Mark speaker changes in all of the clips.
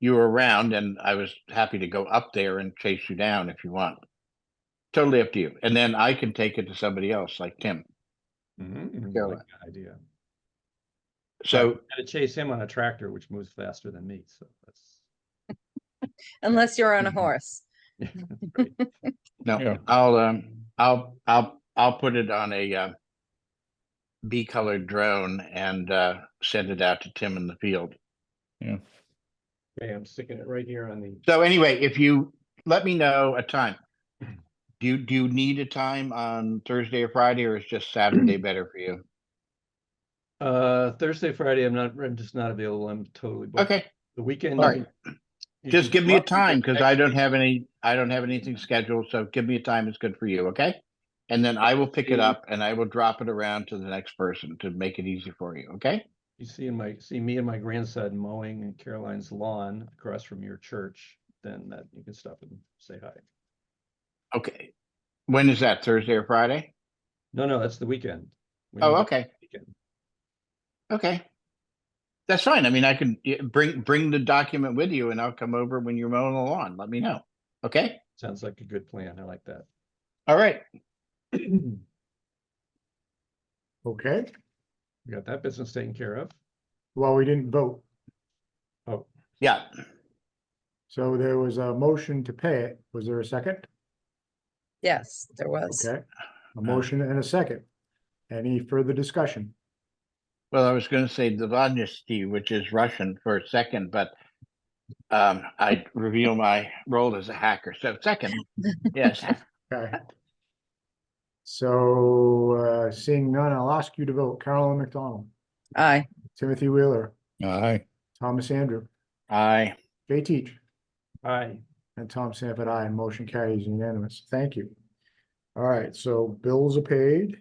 Speaker 1: you were around and I was happy to go up there and chase you down if you want. Totally up to you. And then I can take it to somebody else like Tim.
Speaker 2: Mhm,
Speaker 1: Yeah.
Speaker 2: I like that Idea.
Speaker 1: So
Speaker 2: I had to chase him on a tractor, which moves faster than me, so that's.
Speaker 3: unless you're on a
Speaker 1: Mhm.
Speaker 3: horse.
Speaker 2: great.
Speaker 1: no,
Speaker 4: Yeah.
Speaker 1: I'll um, I'll I'll I'll put it on a uh, bee colored drone and uh, send it out to Tim in the field.
Speaker 2: Okay, I'm sticking it right here on the,
Speaker 1: So anyway, if you let me know a time. Do you do you need a time on Thursday or Friday, or is just Saturday better for you?
Speaker 2: uh, Thursday, Friday, I'm not, I'm just not available. I'm totally booked.
Speaker 1: Okay,
Speaker 2: The weekend.
Speaker 1: All
Speaker 2: you can- you
Speaker 1: just
Speaker 2: can
Speaker 1: give me a
Speaker 2: drop something
Speaker 1: time because
Speaker 2: next
Speaker 1: I don't
Speaker 2: week.
Speaker 1: have any, I don't have anything scheduled. So give me a time that's good for you, okay? And then I will pick it
Speaker 2: Mm.
Speaker 1: up and I will drop it around to the next person to make it easy for you, okay?
Speaker 2: You see in my, see me and my grandson mowing in Caroline's lawn across from your church, then that, you can stop and say hi.
Speaker 1: Okay. When is that? Thursday or Friday?
Speaker 2: No, no, that's the weekend. We
Speaker 1: Oh,
Speaker 2: need
Speaker 1: okay.
Speaker 2: the weekend.
Speaker 1: Okay. That's fine. I mean, I can yeah, bring, bring the document with you and I'll come over when you're mowing the lawn. Let me know. Okay?
Speaker 2: Sounds like a good plan. I like that.
Speaker 1: All right.
Speaker 2: We
Speaker 4: Okay,
Speaker 2: got that business taken care of.
Speaker 4: well, we didn't vote,
Speaker 2: Oh,
Speaker 1: Yeah.
Speaker 4: so there was a motion to pay it. Was there a second?
Speaker 3: Yes, there was.
Speaker 4: Okay, a motion and a second. Any further discussion?
Speaker 1: Well, I was gonna say Dvanyasti, which is Russian for second, but um, I reveal my role as a hacker. So second, yes.
Speaker 4: Okay. So, uh, seeing none, I'll ask you to vote. Carolyn McDonald,
Speaker 3: Aye.
Speaker 4: Timothy Wheeler,
Speaker 1: Aye.
Speaker 4: Thomas Andrew,
Speaker 1: Aye.
Speaker 4: Jay Teach,
Speaker 2: aye.
Speaker 4: and Tom Sanford, aye. Motion carries unanimous. Thank you. All right, so bills are paid.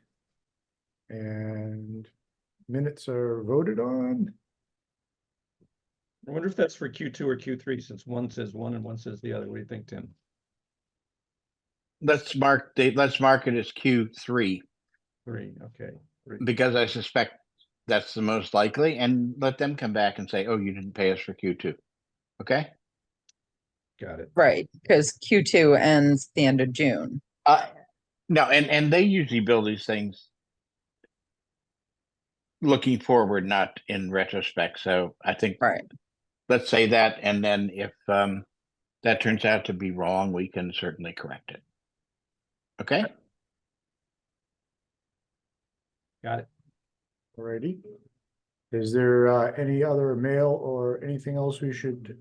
Speaker 4: And minutes are voted on.
Speaker 2: I wonder if that's for Q two or Q three, since one says one and one says the other. What do you think, Tim?
Speaker 1: Let's mark, the let's mark it as Q three,
Speaker 2: Three, okay. three.
Speaker 1: because I suspect that's the most likely, and let them come back and say, oh, you didn't pay us for Q two. Okay?
Speaker 2: Got it.
Speaker 3: Right, because Q2 ends the end of June.
Speaker 1: Uh, no, and, and they usually build these things looking forward, not in retrospect. So I think
Speaker 3: Right.
Speaker 1: let's say that, and then if um that turns out to be wrong, we can certainly correct it. Okay,
Speaker 2: Got it.
Speaker 4: Alrighty. Is there uh, any other mail or anything else we should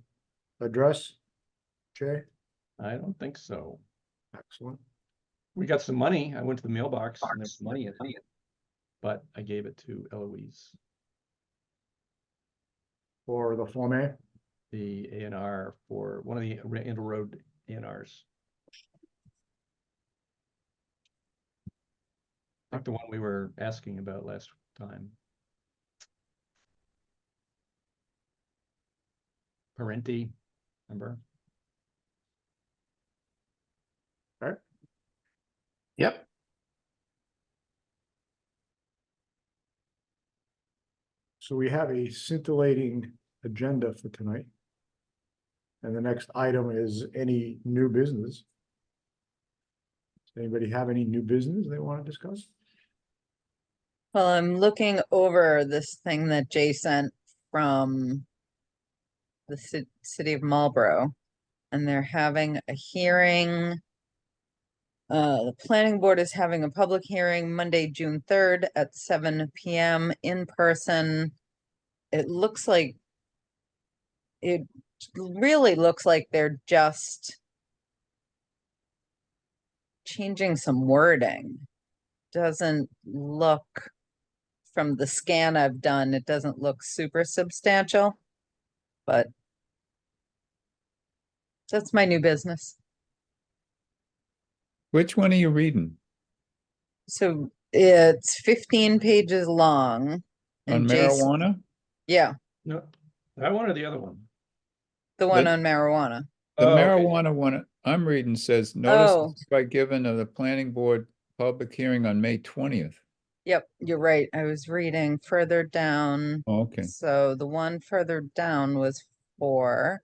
Speaker 4: address? Jay,
Speaker 2: I don't think so.
Speaker 4: excellent.
Speaker 2: We got some money. I went to the mailbox and there's money in it. But I gave it to Eloise,
Speaker 4: For the Form A,
Speaker 2: the A and R for one of the Randall Road A and Rs. Like the one we were asking about last time. Parenti, remember?
Speaker 1: yep.
Speaker 4: so we have a scintillating agenda for tonight. And the next item is any new business. Does Anybody have any new business they want to discuss?
Speaker 3: Well, I'm looking over this thing that Jay sent from the ci- city of Marlborough, and they're having a hearing. Uh, the planning board is having a public hearing Monday, June third at seven PM in person. It looks like it really looks like they're just changing some wording doesn't look, from the scan I've done, it doesn't look super substantial, but that's my new business.
Speaker 5: Which one are you reading?
Speaker 3: So it's fifteen pages long.
Speaker 5: On
Speaker 3: and Jason-
Speaker 5: marijuana?
Speaker 3: Yeah,
Speaker 2: No, that one or the other one?
Speaker 3: the one
Speaker 5: The-
Speaker 3: on marijuana.
Speaker 5: The
Speaker 2: Oh, okay.
Speaker 5: marijuana one I'm reading says
Speaker 3: Oh.
Speaker 5: notice by given of the planning board public hearing on May twentieth.
Speaker 3: Yep, you're right. I was reading further down.
Speaker 5: Oh, Okay,
Speaker 3: So the one further down was for